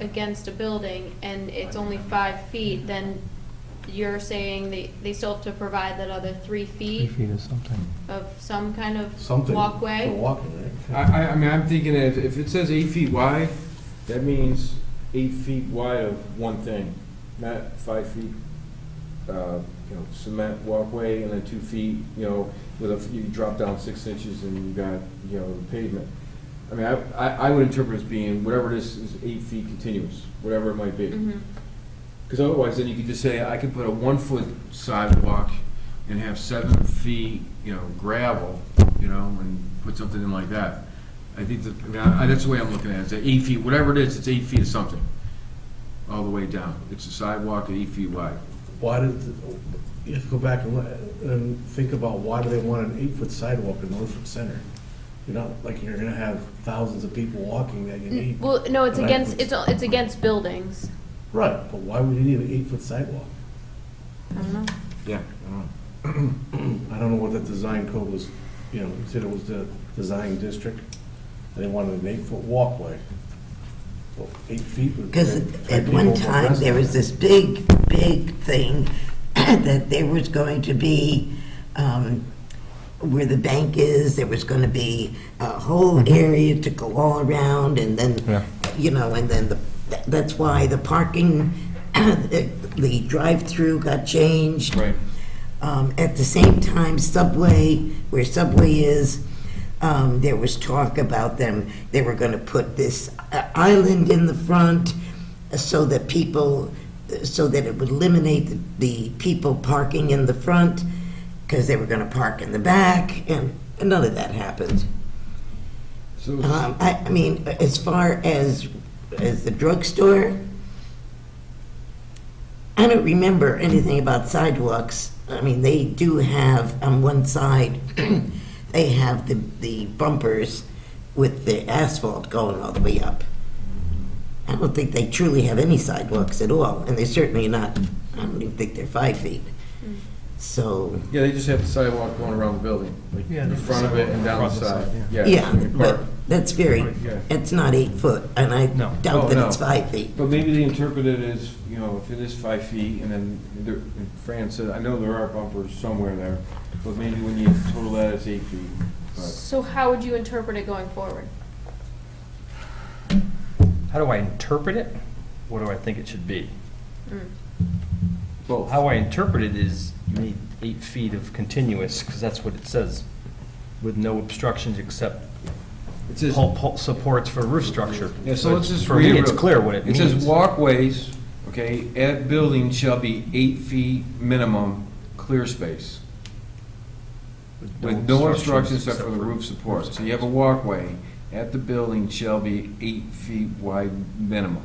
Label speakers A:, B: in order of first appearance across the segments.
A: against a building and it's only five feet, then you're saying they, they still have to provide that other three
B: Three
A: feet
B: feet or something.
A: of some kind of
C: Something
A: walkway?
C: for walking,
D: I,
C: right?
D: I, I mean, I'm thinking if, if it says eight feet wide, that means eight feet wide of one thing, not five feet, uh, you know, cement walkway and then two feet, you know, with a, you drop down six inches and you got, you know, the pavement. I mean, I, I, I would interpret as being whatever this is, eight feet continuous, whatever it might be.
A: Mhm.
D: Because otherwise, then you could just say, I could put a one-foot sidewalk and have seven feet, you know, gravel, you know, and put something in like that. I think that, I mean, I, I- that's the way I'm looking at it, it's eight feet, whatever it is, it's eight feet of something, all the way down. It's a sidewalk at eight feet wide.
C: Why did, you have to go back and, let- and think about why do they want an eight-foot sidewalk in Norfolk Center? You're not, like, you're gonna have thousands of people walking that you
A: N-
C: need.
A: Well, no, it's
C: Right.
A: against, it's, all- it's against buildings.
C: Right, but why would you need an eight-foot sidewalk?
A: I don't know.
D: Yeah.
C: I don't know what that design code was, you know, you said it was the design district, and they wanted an eight-foot walkway. Well, eight feet would.
E: Because at
C: I'd be
E: one
C: able to
E: time,
C: rest.
E: there was this big, big thing that there was going to be, um, where the bank is, there was going to be a whole area to go all around, and
B: Yeah.
E: then, you know, and then the, that's why the parking, the the drive-through got changed.
D: Right.
E: Um, At the same time, Subway, where Subway is, um, there was talk about them, they were going to put this uh, island in the front uh, so that people, uh, so that it would eliminate the- the people parking in the front, because they were going to park in the back, and none of that happened.
D: So,
E: Um, I I mean, as far as, as the drugstore, I don't remember anything about sidewalks. I mean, they do have, on one side, they have the the bumpers with the asphalt going all the way up. I don't think they truly have any sidewalks at all, and they're certainly not, I don't even think they're five feet. So,
D: yeah, they just have the sidewalk going around the building, like
B: Yeah,
D: in
B: there's a
D: front of it and down the
B: sidewalk. Front
D: side,
B: of the side,
D: yeah.
E: yeah,
D: and park.
E: but that's very,
D: Yeah.
E: it's not eight foot, and I
B: No.
E: doubt
D: Oh,
E: that
D: no.
E: it's five feet.
D: But maybe they interpret it as, you know, if it is five feet, and then there- and Fran said, I know there are bumpers somewhere there, but maybe when you total that, it's eight feet. But
A: So how would you interpret it going forward?
F: How do I interpret it? What do I think it should be?
D: Both.
F: How I interpret it is you need eight feet of continuous, because that's what it says, with no obstructions except
D: It says-
F: pul- pul- supports for roof structure.
D: Yeah, so let's just
F: For me,
D: read it
F: it's
D: real-
F: clear what it means.
D: It says walkways, okay, at building shall be eight feet minimum clear space, with no obstructions except for the roof supports. So you have a walkway at the building shall be eight feet wide minimum.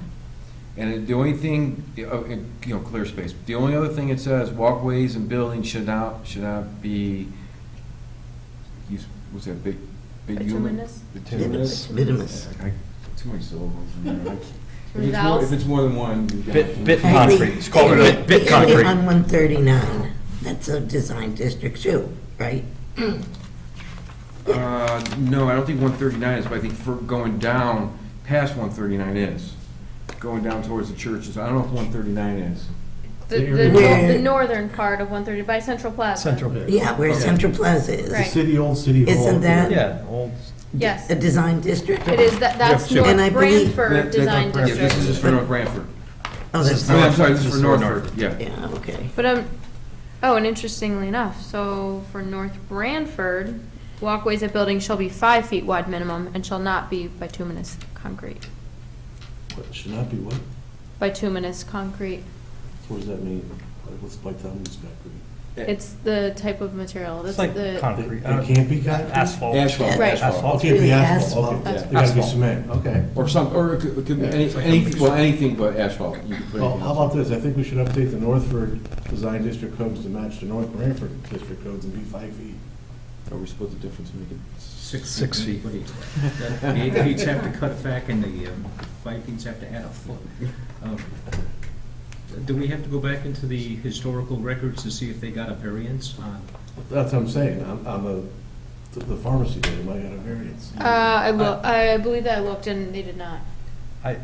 D: And the only thing, uh, uh, you know, clear space, the only other thing it says, walkways and buildings should not, should not be, use- what's that, big, big human?
A: Bituminous?
E: Minimus, minimus.
D: I- Too many syllables in there. I can't- If it's more-
A: Rudolph?
D: If it's more than one. you
F: Bit,
D: got-
F: bit concrete, it's called bit, bit concrete.
E: On 139, that's a design district too, right?
D: Uh, no, I don't think one thirty-nine is, but I think for going down past one thirty-nine is, going down towards the churches, I don't know if one thirty-nine is.
A: The, the,
E: Where-
A: the northern part of one thirty, by Central Plaza.
F: Central,
E: Yeah, where Central Plaza
C: The
A: Right.
E: is.
C: city, old city hall.
E: Isn't that-
F: yeah, old,
A: Yes,
E: A
A: it
E: design district?
A: is, that, that's
F: Yeah, sure.
E: And I
A: North
E: believe-
A: Branford Design
D: Yeah, this is
A: District.
D: just for North Branford.
E: Oh, that's
D: I mean, I'm
E: not,
D: sorry, this is for Northford, yeah.
E: yeah, okay.
A: But, um, oh, and interestingly enough, so for North Branford, walkways at buildings shall be five feet wide minimum and shall not be bituminous concrete.
C: What, Should not be what?
A: Bituminous concrete,
C: What does that mean? Like, what's by town inspector?
A: it's the type of material, that's
F: it's like
A: the,
F: concrete.
C: It
F: I don't-
C: can't be concrete?
F: Asphalt.
D: Asphalt,
A: Right.
D: asphalt,
C: Oh, it
E: It's
C: can't be
E: really
C: asphalt,
E: asphalt.
C: okay.
A: That's
C: It gotta be
F: asphalt.
C: cement, okay.
D: or some, or it could, it could be any, any, well, anything but asphalt. You could put
C: Well,
D: it
C: how about this, I think we should update the Northford Design District codes to match the North Branford District codes and be five feet.
D: in. Or we split the difference, and make it six.
F: Six feet.
G: The eight feet have to cut back and the um, five feet have to add a foot. Um, Do we have to go back into the historical records to see if they got a variance on?
C: That's what I'm saying, on, on the, the pharmacy, they might have a variance.
A: uh, I loo- I believe that I looked and they did not.
F: I,